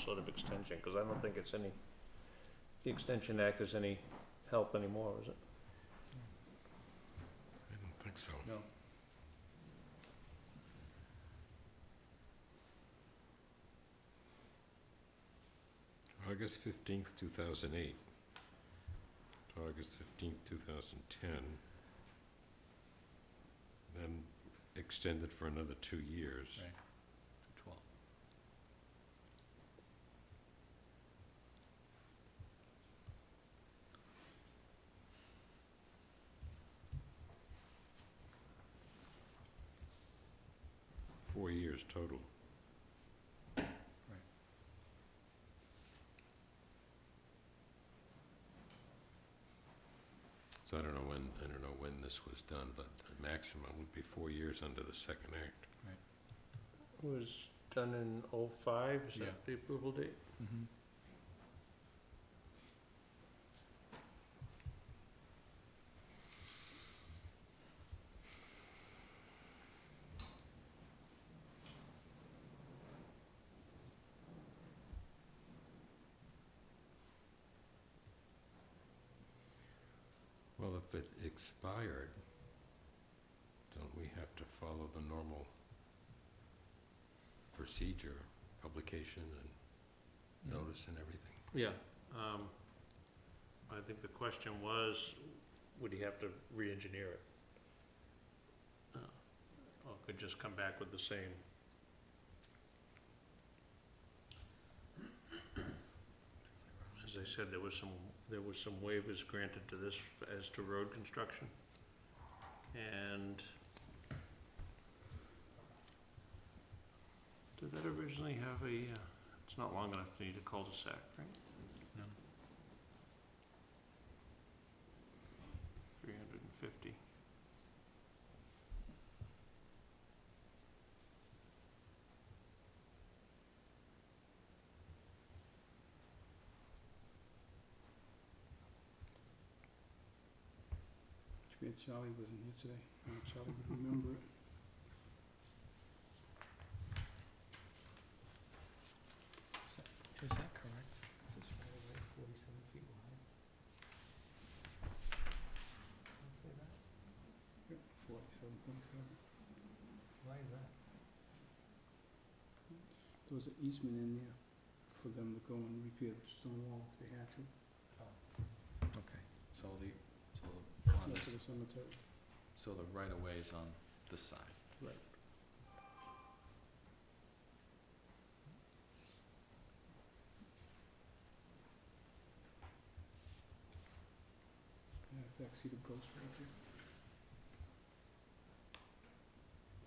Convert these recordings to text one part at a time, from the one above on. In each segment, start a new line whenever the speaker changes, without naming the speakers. sort of extension, because I don't think it's any, the Extension Act is any help anymore, is it?
I don't think so.
No.
August fifteenth, two thousand eight. August fifteenth, two thousand ten. Then extended for another two years.
Right. Twelve.
Four years total. So I don't know when, I don't know when this was done, but the maximum would be four years under the second act.
It was done in oh-five, is
Yeah.
that the approval date?
Mm-hmm.
Well, if it expired, don't we have to follow the normal procedure, publication and notice and everything?
Yeah, um, I think the question was, would he have to re-engineer it? Uh, Or could just come back with the same? As I said, there was some, there was some waivers granted to this as to road construction. And did that originally have a, uh, it's not long enough to need a cul-de-sac, right?
No.
Three hundred and fifty.
Too bad Charlie wasn't here today. Uh, Charlie would remember it.
Is that correct? Is this right away forty-seven feet wide? Does that say that?
Forty-seven, forty-seven.
Why is that?
There was an easement in there for them to go and repair the stone wall if they had to.
Oh. Okay, so the, so the, on
Not
this,
for the cemetery.
so the right of way is on this side.
Right. Yeah, in fact, see the post right there.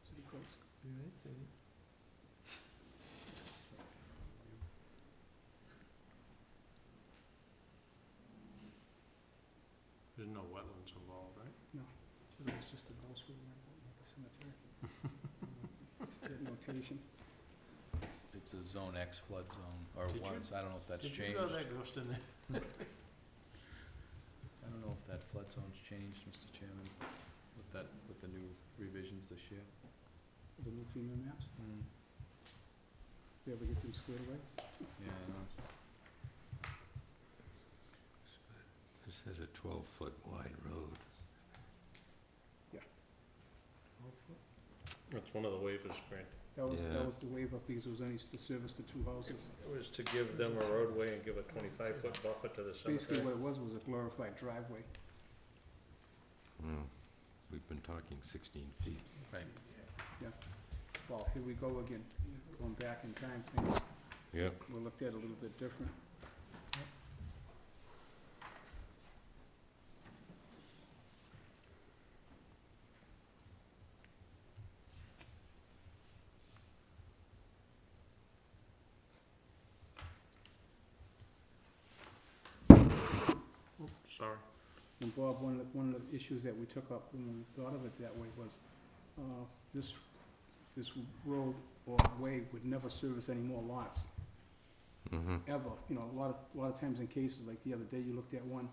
See the post?
There's no wetlands involved, right?
It was just a post we went on, like a cemetery. It's that notation.
It's, it's a zone X flood zone, or
Did you-
was, I don't know if that's
Did you
changed.
throw that ghost in there?
I don't know if that flood zone's changed, Mr. Chairman, with that, with the new revisions this year.
The new FEMA maps,
Hmm.
if we ever get them squared away.
Yeah, I know.
This has a twelve-foot wide road.
That's one of the waivers granted.
That was,
Yeah.
that was the waiver because it was only to service the two houses.
It was to give them a roadway and give a twenty-five foot buffer to the
Basically,
cemetery.
what it was, was a glorified driveway.
Hmm. We've been talking sixteen feet.
Right,
Well, here we go again, going back in time, things
Yeah.
were looked at a little bit different.
Sorry.
And Bob, one of, the- one of the issues that we took up when we thought of it that way was, uh, this, this road or way would never service any more lots,
Mm-hmm.
ever. You know, a lot of, a lot of times in cases, like the other day, you looked at one,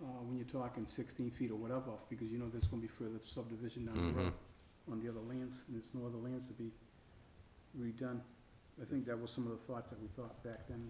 uh, when you're talking sixteen feet or whatever, because you know there's gonna be further subdivision down the road. on the other lands, and there's no other lands to be redone. I think that was some of the thoughts that we thought back then.